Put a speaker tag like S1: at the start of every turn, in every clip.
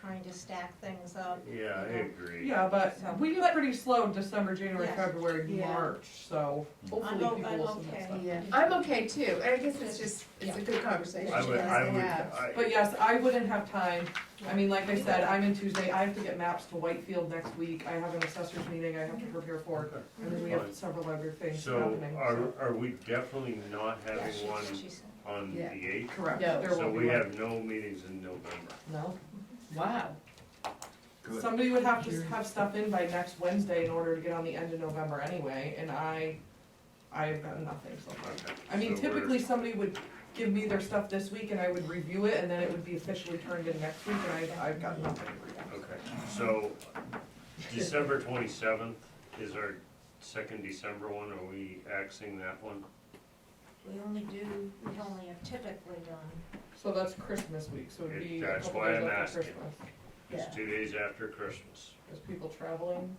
S1: trying to stack things up.
S2: Yeah, I agree.
S3: Yeah, but
S1: So-
S3: we get pretty slow in December, January,
S1: Yes.
S3: February,
S4: Yeah.
S3: March, so
S1: I'm,
S3: hopefully
S1: o-
S3: people
S1: I'm
S3: will submit
S1: okay.
S3: stuff.
S4: Yeah, I'm okay too, and I guess it's just, it's a good conversation
S2: I
S4: you
S2: would,
S4: guys
S2: I
S4: to
S2: would,
S4: have.
S2: I.
S3: But yes, I wouldn't have time, I mean, like I said, I'm in Tuesday, I have to get maps to Whitefield next week, I have an assessors meeting I have to prepare for, and then we have several other things
S2: So
S3: happening.
S2: are, are we definitely not
S1: Yeah,
S2: having
S1: she-
S2: one
S1: she said.
S2: on the
S4: Yeah.
S2: eighth?
S3: Correct,
S4: No.
S3: there
S2: So
S3: will be
S2: we
S3: one.
S2: have no meetings in November.
S3: No,
S4: Wow,
S3: somebody would have to have stuff in by next Wednesday in order to get on the end of November anyway, and I, I have got nothing so far.
S2: Okay,
S3: I mean,
S2: so we're-
S3: typically somebody would give me their stuff this week and I would review it and then it would be officially turned in next week and I, I've got nothing.
S2: Okay, so December twenty-seventh is our second December one, are we axing that one?
S1: We only do, we only have typically done,
S3: So that's Christmas week, so it'd be a
S2: That's
S3: couple
S2: why
S3: days
S2: I'm
S3: after
S2: asking.
S3: Christmas.
S4: yeah,
S2: It's two days after Christmas.
S3: There's people traveling,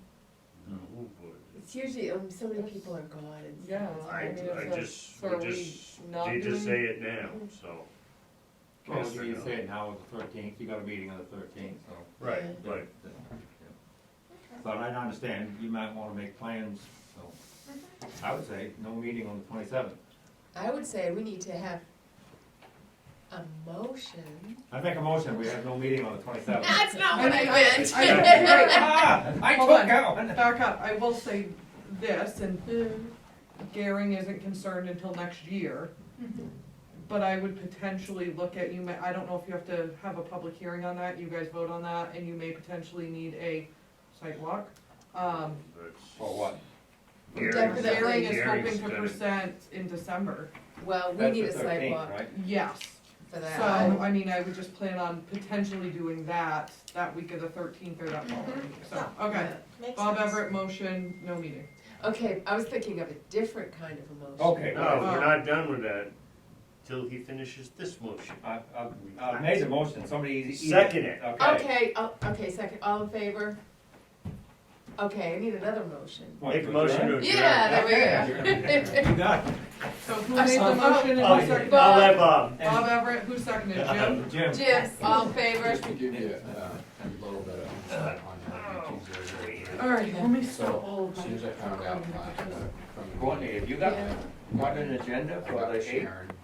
S2: Oh, boy.
S4: it's usually, um, so many people are gone and.
S3: yeah.
S2: I,
S3: mean, it's
S2: I
S3: like-
S2: just,
S3: so are
S2: we
S3: we
S2: just,
S3: not
S2: they just say
S3: doing-
S2: it now, so.
S5: Well,
S2: Yes or
S5: you
S2: no?
S5: say it now, it's the thirteenth, you got a meeting on the thirteenth, so.
S2: Right,
S4: Yeah.
S2: right.
S5: But I understand, you might wanna make plans, so, I would say, no meeting on the twenty-seventh.
S4: I would say we need to have a motion.
S5: I make a motion, we have no meeting on the twenty-seventh. Ah,
S4: That's not
S3: what I
S4: meant.
S3: I- I-
S5: I
S3: Hold on.
S5: took out.
S3: Back up, I will say this, and Garing isn't concerned until next year. But I would potentially look at, you may, I don't know if you have to have a public hearing on that, you guys vote on that, and you may potentially need a sidewalk. Um,
S2: That's-
S5: For what?
S2: Gary's-
S4: Definitely.
S3: Garing is
S2: Gary's
S3: hoping to
S2: gonna-
S3: present in December,
S4: Well, we
S5: That's
S4: need
S5: the
S4: a
S5: 13th,
S4: sidewalk
S5: right?
S3: yes.
S4: for
S3: So,
S4: that.
S3: I mean, I would just plan on potentially doing that, that week of the thirteenth or that following, week. so, okay.
S4: Yeah.
S1: makes sense.
S3: Bob Everett, motion, no meeting.
S4: Okay, I was thinking of a different kind of a motion.
S5: Okay,
S2: No,
S5: well,
S2: we're not done with that till he finishes this motion.
S5: I, I, I made the motion, somebody. either-
S2: Second it.
S5: Okay.
S4: Okay, oh, okay, second, all in favor? Okay, I need another motion.
S5: What,
S2: Make a motion to adjourn.
S4: Yeah, there we
S5: Okay.
S4: go.
S5: You got it.
S3: So who
S4: I
S3: made
S4: saw
S3: the motion
S2: Oh,
S3: and who seconded?
S2: Um, I'll let Bob.
S3: Bob Everett, who seconded, Jim?
S5: Jim.
S4: Yes, all in favor?
S6: Just to give you uh, a little bit of insight on that, which is, uh,
S3: Alright, let me stop.
S6: so, as soon as I found out last, uh, from.
S5: Courtney, have you got, got an agenda
S6: I
S5: for
S6: got
S5: the eighth?
S6: Sharon,